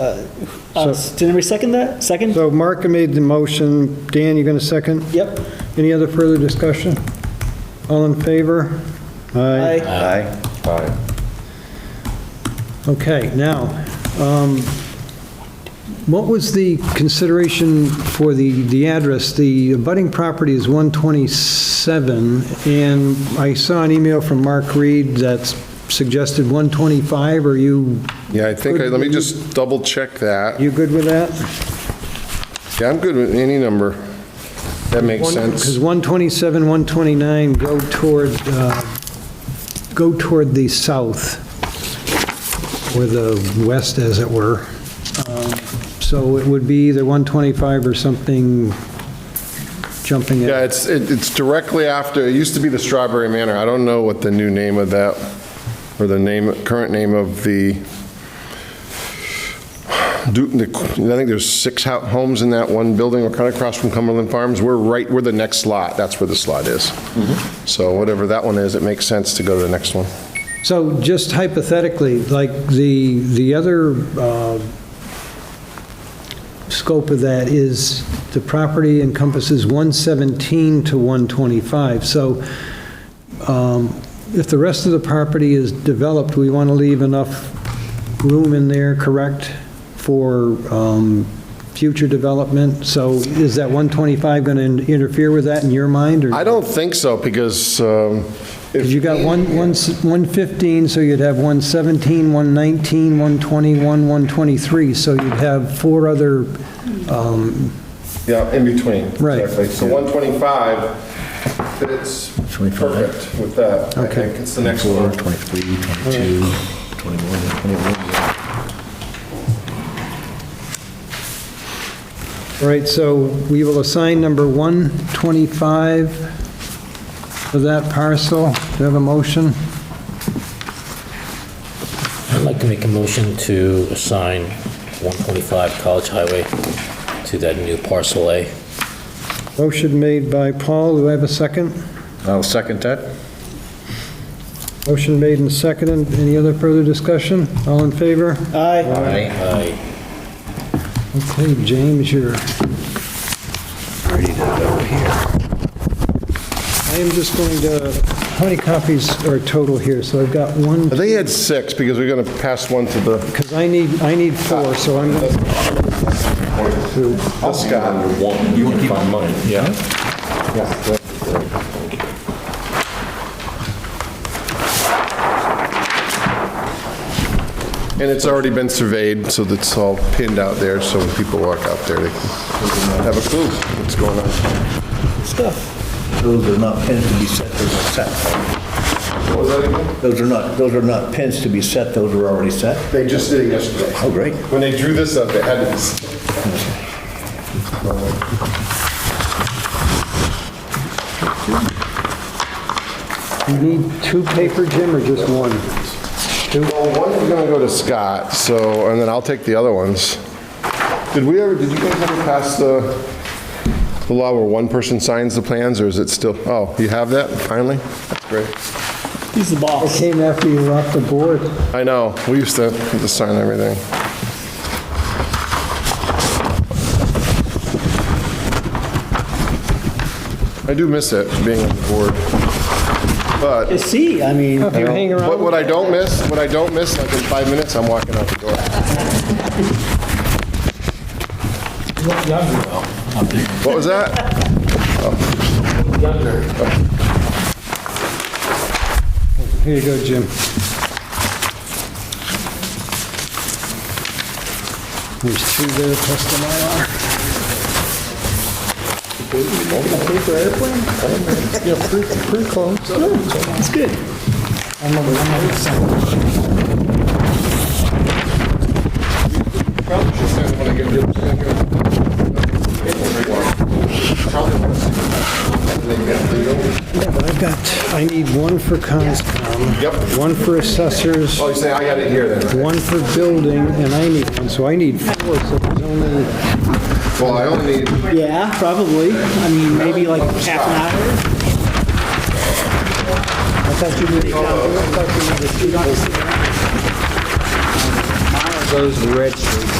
Uh, Did anybody second that? Second? So Mark made the motion. Dan, you going to second? Yep. Any other further discussion? All in favor? Aye. Aye. Aye. Aye. Okay, now, um, what was the consideration for the, the address? The abutting property is 127, and I saw an email from Mark Reed that suggested 125. Are you, Yeah, I think, I- let me just double check that. you good with that? Yeah, I'm good with any number. That makes Because sense. 127, 129 go toward, uh, go toward the south, or the west, as it were. Um, So it would be either 125 or something jumping Yeah, it. it's, it- it's directly after, it used to be the Strawberry Manor. I don't know what the new name of that, or the name, current name of the, do- the- I think there's six ho- homes in that one building. We're kind of across from Cumberland Farms. We're right, we're the next lot. That's where this lot is. Mm-hmm. So whatever that one is, it makes sense to go to the next one. So just hypothetically, like the, the other uh, scope of that is the property encompasses 117 to 125. So um, if the rest of the property is developed, we want to leave enough room in there, correct, for um, future development? So is that 125 going to interfere with that in your mind? or- I don't think so, because um, if because you got one, one s- 115, so you'd have 117, 119, 121, 123, so you'd have four other, um, Yeah, in between. Right. Exactly. So 125 fits perfect with that. I Okay. think it's the next one. 23, 22, 21, 21. all right, so we will assign number 125 for that parcel. Do you have a motion? I'd like to make a motion to assign 125 College Highway to that new parcel A. Motion made by Paul, do I have a second? I'll second that. Motion made and seconded, any other further discussion? All in favor? Aye. Aye. I Okay, James, you're ready to go here. I am just going to, how many copies are total here? So I've got one, They had six, because we're going to pass one to the, because I need, I need four, so I'm, to Scott. You want to find mine? Yeah. And it's already been surveyed, so that's all pinned out there, so when people walk out there, they can have a clue what's going on. Stuff. Those are not pins to be set, those are set. What was that again? Those are not, those are not pins to be set, those are already set. They just did it yesterday. Oh, great. When they drew this up, they had this. you need two paper, Jim, or just one? Well, one is going to go to Scott, so, and then I'll take the other ones. Did we ever, did you guys ever pass the, the law where one person signs the plans, or is it still, oh, you have that finally? That's great. He's the I boss. came after you were off the board. I know, we used to have to sign everything. I do miss it, being on the board. But You see, I mean, If you hang What, around, what I don't miss, what I don't miss, like in five minutes, I'm walking out the door. What was that? here you go, Jim. There's two there, plus the Mylar. Oh, it's good. Yeah, but I've got, I need one for Conscom. Yep. One for assessors. Oh, you say I got it here then? one for building, and I need one, so I need four, so there's only, Well, I only need, Yeah, probably. I mean, maybe like half an hour. I thought you were the account. I thought you were the student.